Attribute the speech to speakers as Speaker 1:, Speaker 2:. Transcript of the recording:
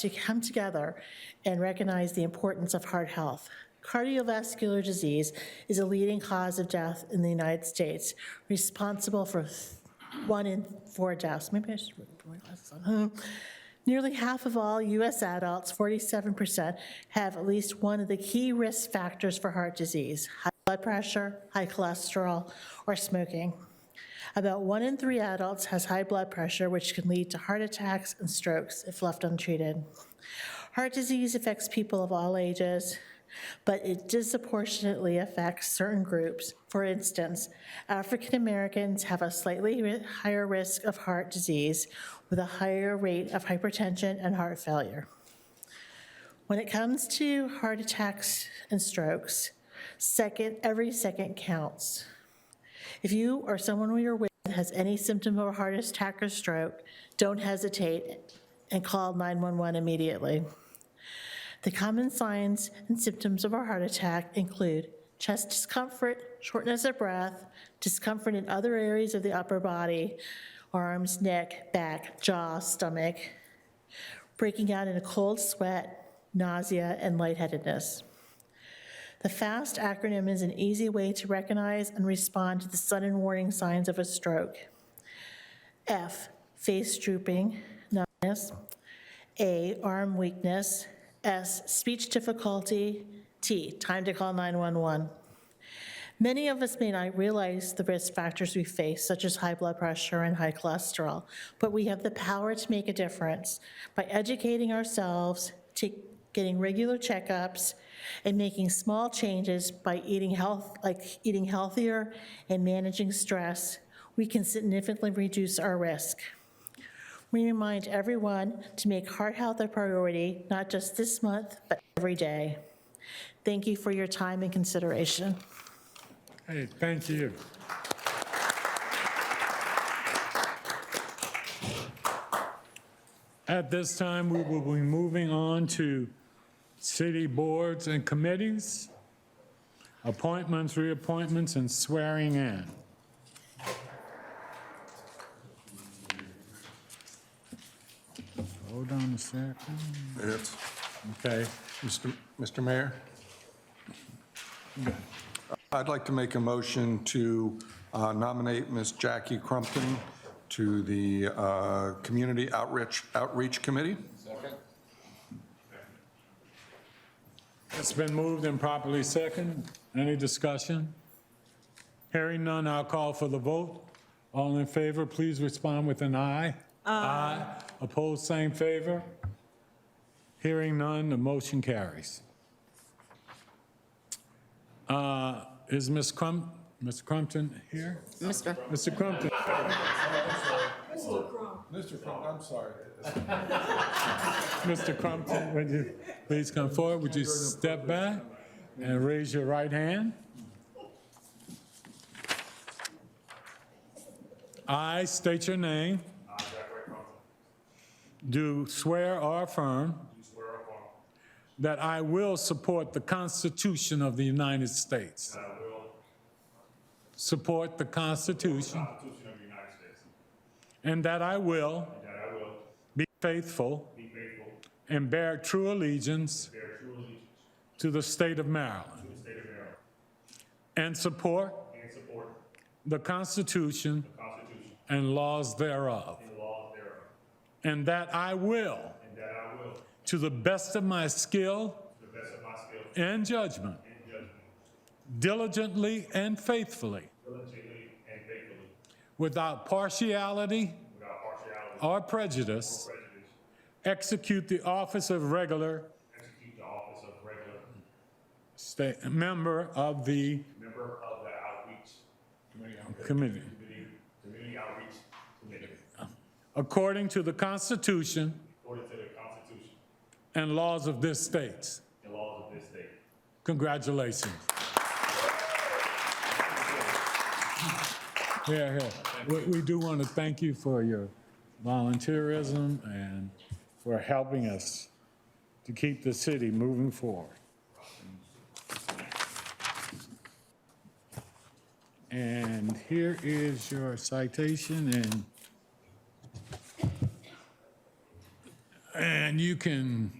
Speaker 1: to come together and recognize the importance of heart health. Cardiovascular disease is a leading cause of death in the United States, responsible for th- one in four deaths. Maybe I should put my glasses on. Nearly half of all US adults, 47%, have at least one of the key risk factors for heart disease, high blood pressure, high cholesterol, or smoking. About one in three adults has high blood pressure, which can lead to heart attacks and strokes if left untreated. Heart disease affects people of all ages, but it disproportionately affects certain groups. For instance, African Americans have a slightly ri- higher risk of heart disease with a higher rate of hypertension and heart failure. When it comes to heart attacks and strokes, second, every second counts. If you or someone you're with has any symptom of a heart attack or stroke, don't hesitate and call 911 immediately. The common signs and symptoms of a heart attack include chest discomfort, shortness of breath, discomfort in other areas of the upper body, arms, neck, back, jaw, stomach, breaking out in a cold sweat, nausea, and lightheadedness. The FAST acronym is an easy way to recognize and respond to the sudden warning signs of a stroke. F, face drooping, numbness. A, arm weakness. S, speech difficulty. T, time to call 911. Many of us may not realize the risk factors we face, such as high blood pressure and high cholesterol, but we have the power to make a difference by educating ourselves, to getting regular checkups, and making small changes by eating health, like eating healthier and managing stress. We can significantly reduce our risk. We remind everyone to make heart health a priority, not just this month, but every day. Thank you for your time and consideration.
Speaker 2: Hey, thank you. At this time, we will be moving on to city boards and committees, appointments, reappointments, and swearing in. Hold on a second.
Speaker 3: Minutes.
Speaker 2: Okay,
Speaker 3: Mr. Mr. Mayor? I'd like to make a motion to uh, nominate Ms. Jackie Crumpton to the uh, Community Outreach, Outreach Committee.
Speaker 2: it's been moved and properly second. Any discussion? Hearing none, I'll call for the vote. All in favor, please respond with an aye. Aye. Opposed, same favor. Hearing none, the motion carries. Uh, Is Ms. Crump, Ms. Crumpton here?
Speaker 4: Mr.
Speaker 2: Mr. Crumpton?
Speaker 3: Mr. Crumpton, I'm sorry.
Speaker 2: Mr. Crumpton, would you please come forward? Would you step back and raise your right hand? I state your name. Do swear or affirm. That I will support the Constitution of the United States. I will. Support the Constitution
Speaker 5: Constitution of the United States.
Speaker 2: and that I will
Speaker 5: And that I will
Speaker 2: be faithful
Speaker 5: be faithful to
Speaker 2: and bear true allegiance
Speaker 5: bear true allegiance
Speaker 2: to the state of Maryland
Speaker 5: to the state of Maryland
Speaker 2: and support
Speaker 5: and support
Speaker 2: the Constitution
Speaker 5: the Constitution
Speaker 2: and laws thereof,
Speaker 5: and laws thereof.
Speaker 2: and that I will,
Speaker 5: And that I will, to
Speaker 2: to the best of my skill
Speaker 5: the best of my skill
Speaker 2: and judgment,
Speaker 5: and judgment,
Speaker 2: diligently and faithfully,
Speaker 5: diligently and faithfully,
Speaker 2: without partiality
Speaker 5: without partiality or
Speaker 2: or prejudice,
Speaker 5: prejudice,
Speaker 2: execute the office of regular
Speaker 5: execute the office of regular
Speaker 2: sta- member of the
Speaker 5: member of the outreach
Speaker 2: committee,
Speaker 5: committee, committee, community outreach committee,
Speaker 2: according to the Constitution
Speaker 5: according to the Constitution
Speaker 2: and laws of this state.
Speaker 5: and laws of this state.
Speaker 2: Congratulations. Here, here. We, we do want to thank you for your volunteerism and for helping us to keep the city moving forward. And here is your citation and And you can